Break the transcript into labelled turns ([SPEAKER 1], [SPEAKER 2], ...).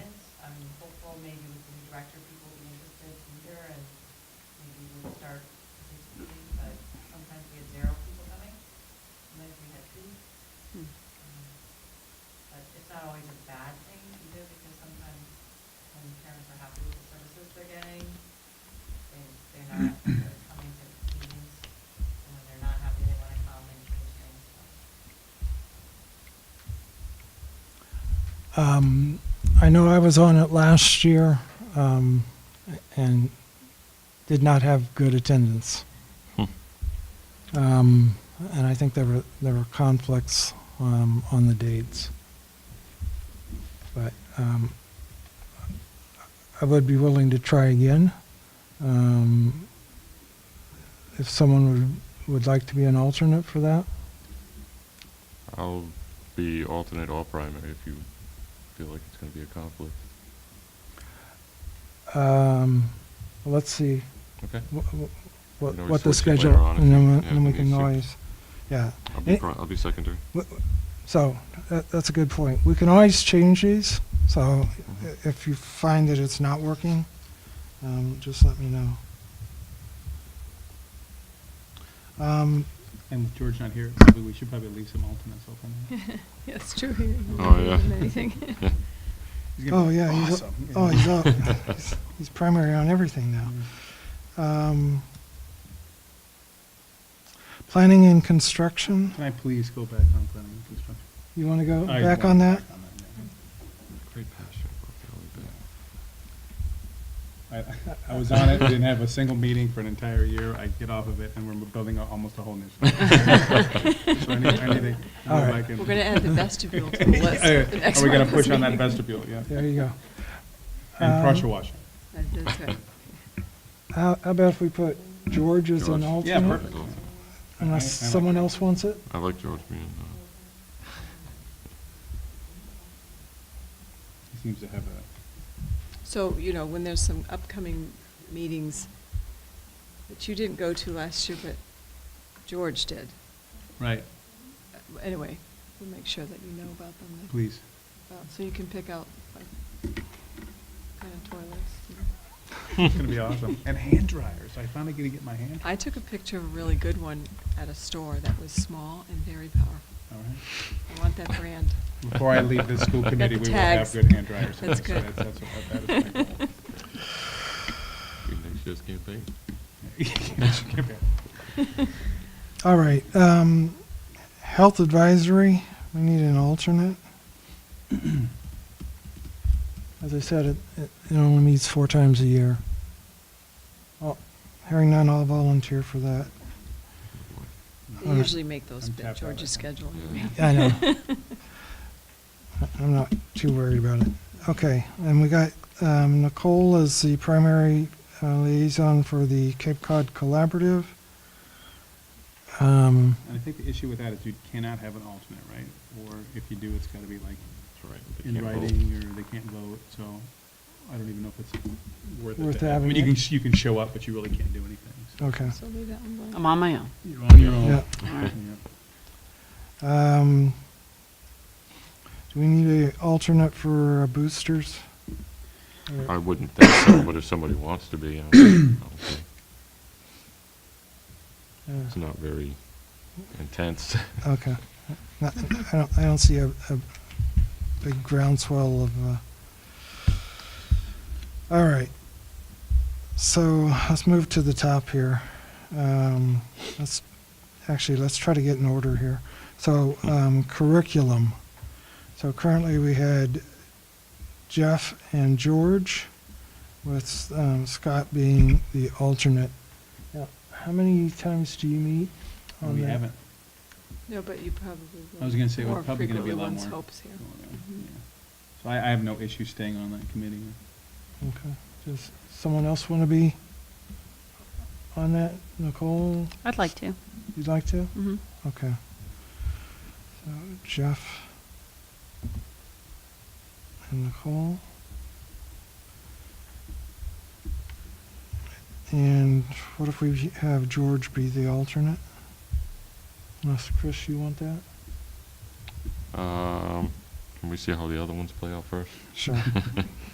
[SPEAKER 1] director people would be interested to hear and maybe we would start participating, but sometimes we had zero people coming. Sometimes we had two.
[SPEAKER 2] Hmm.
[SPEAKER 1] Um, But it's not always a bad thing either because sometimes when parents are happy with the services they're getting, they, they're not they're coming to meetings. And when they're not happy, they wanna come and change things, so.
[SPEAKER 3] Um, I know I was on it last year, um, and did not have good attendance.
[SPEAKER 4] Hmm.
[SPEAKER 3] Um, and I think there were, there were conflicts, um, on the dates. But, um, I would be willing to try again. Um, if someone would, would like to be an alternate for that.
[SPEAKER 4] I'll be alternate or primary if you feel like it's going to be a conflict.
[SPEAKER 3] Um, let's see.
[SPEAKER 4] Okay.
[SPEAKER 3] wh- wh- what,
[SPEAKER 4] We can
[SPEAKER 3] what the
[SPEAKER 4] always switch it later
[SPEAKER 3] schedule,
[SPEAKER 4] on if
[SPEAKER 3] and
[SPEAKER 4] you-
[SPEAKER 3] then, we-
[SPEAKER 4] yeah,
[SPEAKER 3] and we
[SPEAKER 4] if we
[SPEAKER 3] can
[SPEAKER 4] need to.
[SPEAKER 3] always, yeah.
[SPEAKER 4] I'll be,
[SPEAKER 3] Eh,
[SPEAKER 4] pri- I'll be secondary.
[SPEAKER 3] wh- So, that, that's a good point. We can always change these, so i-
[SPEAKER 4] Mm-hmm.
[SPEAKER 3] if you find that it's not working, um, just let me know. Um,
[SPEAKER 5] And with George not here, probably we should probably leave some alternates open.
[SPEAKER 2] Yeah, it's true. He didn't
[SPEAKER 4] Oh,
[SPEAKER 2] do
[SPEAKER 4] yeah.
[SPEAKER 2] Anything.
[SPEAKER 5] He's gonna
[SPEAKER 3] oh,
[SPEAKER 5] be
[SPEAKER 3] yeah, he's,
[SPEAKER 5] awesome, you
[SPEAKER 3] oh,
[SPEAKER 5] know.
[SPEAKER 3] he's up. He's- He's primary on everything now.
[SPEAKER 4] Mm-hmm.
[SPEAKER 3] Um, planning and construction,
[SPEAKER 5] Can I please go back on planning and construction?
[SPEAKER 3] you wanna go
[SPEAKER 5] I
[SPEAKER 3] back on
[SPEAKER 5] want
[SPEAKER 3] that?
[SPEAKER 5] back on
[SPEAKER 4] Great passion.
[SPEAKER 5] yeah. I, I was on it, didn't have a single meeting for an entire year. I get off of it and we're building a- almost a whole new. structure. So I need, I need to go
[SPEAKER 3] All right.
[SPEAKER 5] back and-
[SPEAKER 2] We're going to add the vestibule to the
[SPEAKER 5] Yeah,
[SPEAKER 2] list.
[SPEAKER 5] yeah.
[SPEAKER 2] for the next
[SPEAKER 5] Are we gonna
[SPEAKER 2] month's
[SPEAKER 5] push on that
[SPEAKER 2] meeting.
[SPEAKER 5] vestibule, yeah?
[SPEAKER 3] There you go.
[SPEAKER 5] And
[SPEAKER 3] Um,
[SPEAKER 5] pressure washing.
[SPEAKER 2] Uh, That's right.
[SPEAKER 3] How, how about if we put George as an
[SPEAKER 4] George.
[SPEAKER 5] Yeah,
[SPEAKER 3] alternate?
[SPEAKER 5] perfect.
[SPEAKER 3] Unless
[SPEAKER 5] I- I like
[SPEAKER 3] someone
[SPEAKER 5] that.
[SPEAKER 3] else wants it?
[SPEAKER 4] I like George being. uh,
[SPEAKER 5] He seems to have a,
[SPEAKER 2] So, you know, when there's some upcoming meetings that you didn't go to last year, but George did.
[SPEAKER 5] right,
[SPEAKER 2] Uh, Anyway, we'll make sure that you know about them. then.
[SPEAKER 5] please.
[SPEAKER 2] Well, So you can pick out like, kind of toilets. and-
[SPEAKER 5] It's gonna be awesome. And hand dryers. I finally get to get my hand.
[SPEAKER 2] I took a picture of a really good one at a store that was small and very powerful.
[SPEAKER 5] All right.
[SPEAKER 2] I want that brand.
[SPEAKER 5] Before I leave this school committee,
[SPEAKER 2] the
[SPEAKER 5] we will have
[SPEAKER 2] tags.
[SPEAKER 5] good hand dryers.
[SPEAKER 2] That's
[SPEAKER 5] So
[SPEAKER 2] good.
[SPEAKER 5] That's what, that is my goal.
[SPEAKER 4] Be next year's campaign.
[SPEAKER 3] All right, um, health advisory, we need an alternate. As I said, it, it it only meets four times a year. Well, Hearing none, I'll volunteer for that.
[SPEAKER 2] They
[SPEAKER 3] Alright.
[SPEAKER 2] usually make those
[SPEAKER 5] Uh, I'm
[SPEAKER 2] fit
[SPEAKER 5] tapped out
[SPEAKER 2] George's
[SPEAKER 5] right
[SPEAKER 2] schedule.
[SPEAKER 4] Yeah.
[SPEAKER 3] Yeah, I know. I- I'm not too worried about it. Okay, and we got, um, Nicole as the primary uh, liaison for the Cape Cod Collaborative. Um,
[SPEAKER 5] And I think the issue with that is you cannot have an alternate, right? Or if you do, it's gotta be like
[SPEAKER 4] That's right. They
[SPEAKER 5] in
[SPEAKER 4] can't vote.
[SPEAKER 5] writing, or they can't vote, so I don't even know if it's worth it.
[SPEAKER 3] Worth
[SPEAKER 5] to have. I
[SPEAKER 3] having
[SPEAKER 5] mean, you can,
[SPEAKER 3] it.
[SPEAKER 5] sh- you can show up, but you really can't do anything. so.
[SPEAKER 3] okay,
[SPEAKER 2] So leave that one blank.
[SPEAKER 6] I'm on my own.
[SPEAKER 5] You're on your
[SPEAKER 3] yeah.
[SPEAKER 5] own. Yeah.
[SPEAKER 3] Um, do we need a alternate for uh, boosters? Or-
[SPEAKER 4] I wouldn't think so, but if somebody wants to be, I'll, I'll be.
[SPEAKER 3] yeah,
[SPEAKER 4] It's not very intense.
[SPEAKER 3] Okay. Not- I don't, I don't see a, a big groundswell of, uh, all right. So let's move to the top here. Um, let's, actually, let's try to get in order here. So, um, curriculum. So currently we had Jeff and George with, um, Scott being the alternate. Now, how many times do you meet? on
[SPEAKER 5] We
[SPEAKER 3] that?
[SPEAKER 5] haven't.
[SPEAKER 2] No, but you probably will.
[SPEAKER 5] I was gonna say, we're
[SPEAKER 2] More
[SPEAKER 5] probably gonna be a
[SPEAKER 2] frequently
[SPEAKER 5] lot
[SPEAKER 2] one's
[SPEAKER 5] more.
[SPEAKER 2] hopes here.
[SPEAKER 5] going on, yeah. So I, I have no issue staying on that committee.
[SPEAKER 3] Okay, does someone else want to be on that? Nicole,
[SPEAKER 6] I'd like to.
[SPEAKER 3] you'd like to?
[SPEAKER 6] Mm-hmm.
[SPEAKER 3] Okay. So Jeff and Nicole. And what if we have George be the alternate? Unless, Chris, you want that?
[SPEAKER 4] Um, can we see how the other ones play out first?
[SPEAKER 3] Sure.